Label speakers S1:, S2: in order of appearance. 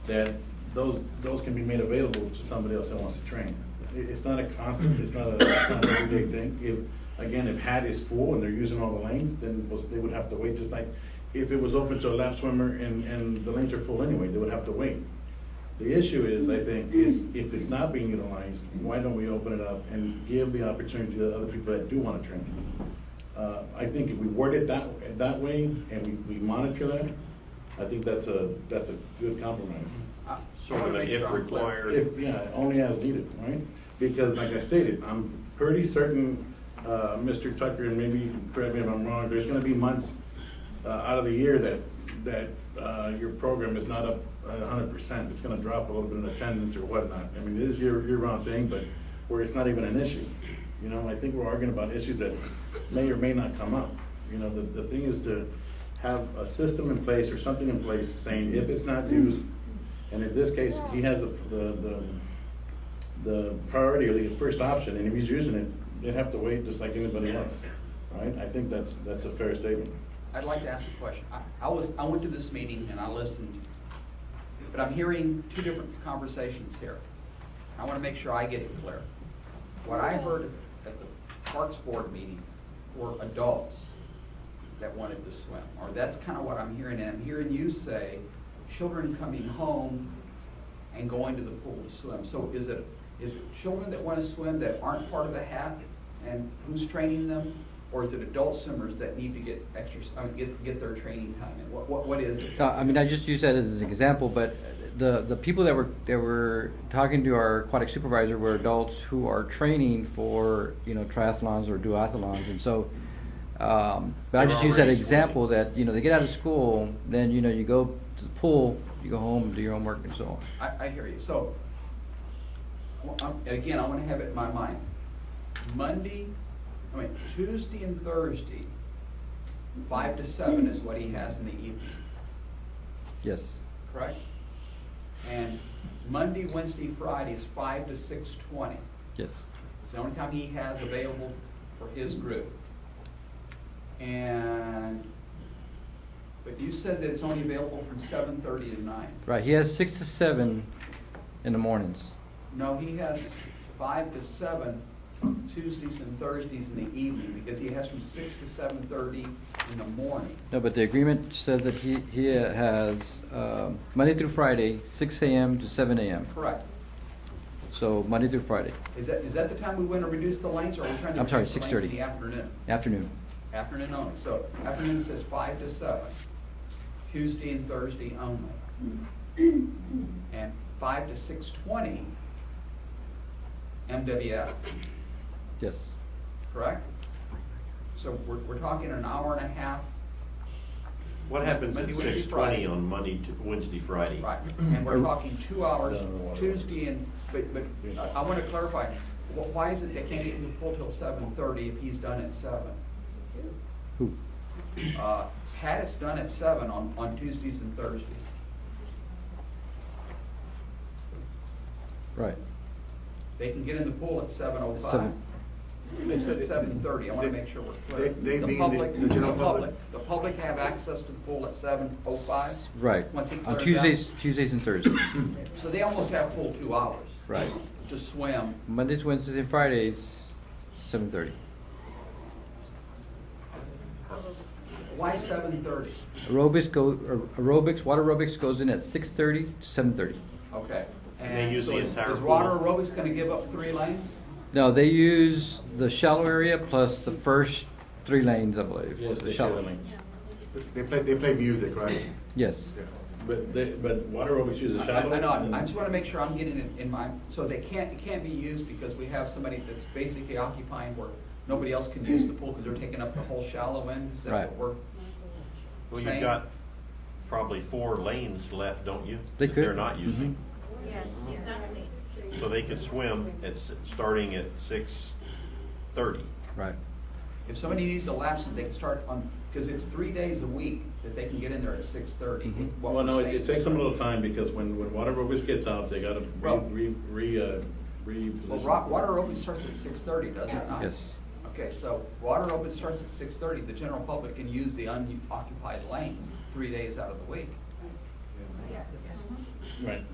S1: that those, those can be made available to somebody else that wants to train. It, it's not a constant, it's not a, it's not an everyday thing. If, again, if hat is full and they're using all the lanes, then was- they would have to wait, just like if it was open to a lap swimmer and, and the lanes are full anyway, they would have to wait. The issue is, I think, is if it's not being utilized, why don't we open it up and give the opportunity to other people that do want to train? Uh, I think if we word it that, that way and we, we monitor that, I think that's a, that's a good compromise.
S2: I- I
S3: Sort
S2: wanna
S3: of an
S2: make
S3: if
S2: sure I'm clear.
S3: required.
S1: If, yeah, only as needed, right? Because like I stated, I'm pretty certain, uh, Mr. Tucker, and maybe, correct me if I'm wrong, there's gonna be months uh, out of the year that, that, uh, your program is not up a hundred percent. It's gonna drop a little bit in attendance or whatnot. I mean, it is your, your round thing, but where it's not even an issue. You know, I think we're arguing about issues that may or may not come up. You know, the, the thing is to have a system in place or something in place saying if it's not used, and in this case, he has the, the, the, the priority or the first option, and if he's using it, they'd have to wait just like anybody else, right? I think that's, that's a fair statement.
S2: I'd like to ask a question. I, I was, I went to this meeting and I listened, but I'm hearing two different conversations here. I want to make sure I get it clear. What I heard at the Parks Board meeting were adults that wanted to swim, or that's kind of what I'm hearing. And I'm hearing you say, children coming home and going to the pool to swim. So is it, is it children that want to swim that aren't part of the HAP and who's training them? Or is it adult swimmers that need to get exercise, I mean, get, get their training time in? What, what, what is it?
S4: No, Uh, I mean, I just use that as an example, but the, the people that were, that were talking to our aquatic supervisor were adults who are training for, you know, triathlons or duathlons, and so, um, but I
S3: They're
S4: just use that
S3: already
S4: example
S3: swimming.
S4: that, you know, they get out of school, then, you know, you go to the pool, you go home, do your homework and so on.
S2: I, I hear you. So, well, I'm- and again, I want to have it in my mind. Monday, I mean, Tuesday and Thursday, five to seven is what he has in the evening.
S4: Yes,
S2: correct? And Monday, Wednesday, Friday is five to six twenty.
S4: yes,
S2: It's the only time he has available for his group. And, but you said that it's only available from seven thirty to nine.
S4: right, he has six to seven in the mornings.
S2: No, he has five to seven Tuesdays and Thursdays in the evening, because he has from six to seven thirty in the morning.
S4: No, but the agreement says that he, he has, um, Monday through Friday, six AM to seven AM,
S2: Correct.
S4: so Monday through Friday,
S2: Is that, is that the time we want to reduce the lanes, or are we trying to
S4: I'm sorry,
S2: reduce the lanes in
S4: 6:30.
S2: the afternoon?
S4: afternoon.
S2: Afternoon only, so afternoon says five to seven, Tuesday and Thursday only. And five to six twenty, MWF,
S4: Yes,
S2: correct? So we're, we're talking an hour and a half,
S3: What happens at
S2: Monday, Wednesday,
S3: six twenty
S2: Friday.
S3: on Monday, to Wednesday, Friday?
S2: right, and we're talking two hours,
S1: No, no, no.
S2: Tuesday and, but, but I- I wanna clarify, wh- why is it they can't get in the pool till seven thirty if he's done at seven?
S4: who?
S2: Uh, Pat is done at seven on, on Tuesdays and Thursdays.
S4: Right.
S2: They can get in the pool at seven oh five.
S4: Seven.
S1: They said
S2: At
S1: it-
S2: seven thirty, I wanna make sure we're clear.
S1: They- they
S2: The
S1: mean the-
S2: public-
S1: the general public?
S2: The public have access to the pool at seven oh five?
S4: Right.
S2: Once he clears
S4: On
S2: out.
S4: Tuesdays, Tuesdays and Thursdays.
S2: So they almost have full two hours.
S4: Right.
S2: To swim.
S4: Mondays, Wednesdays, and Fridays, seven thirty.
S2: Why seven thirty?
S4: Aerobics go, aer- aerobics, water aerobics goes in at six thirty to seven thirty.
S2: Okay.
S3: And they use
S2: so
S3: the
S2: is-
S3: entire
S2: Is water
S3: pool?
S2: aerobics gonna give up three lanes?
S4: No, they use the shallow area plus the first three lanes, I believe.
S1: Yes,
S4: the
S1: they
S4: shallow.
S1: should, I mean.
S5: They play, they play music, right?
S4: Yes,
S1: But they, but water aerobics
S2: I
S1: uses shallow.
S2: I- I know, I- I
S1: and-
S2: just wanna make sure I'm getting it in my, so they can't, it can't be used because we have somebody that's basically occupying where nobody else can use the pool because they're taking up the whole shallow end, is that
S4: Right.
S2: what we're?
S3: Well,
S2: Same.
S3: you've got probably four lanes left, don't you?
S4: They
S3: that
S4: could. Mm-hmm.
S3: They're not using.
S6: Yes, exactly.
S3: So they could swim at, s- starting at six thirty.
S4: right.
S2: If somebody needs to lapse, they can start on, because it's three days a week that they can get in there at six thirty.
S4: Mhm.
S1: Well, no, it it takes them a little time because when, when water aerobics gets out, they gotta
S2: Well-
S1: re, re, re, uh, reposition.
S2: Well, rock, water open starts at six thirty, does it not?
S4: Yes.
S2: Okay, so water open starts at six thirty, the general public can use the unoccupied lanes three days out of the week.
S6: Yes.
S1: Right.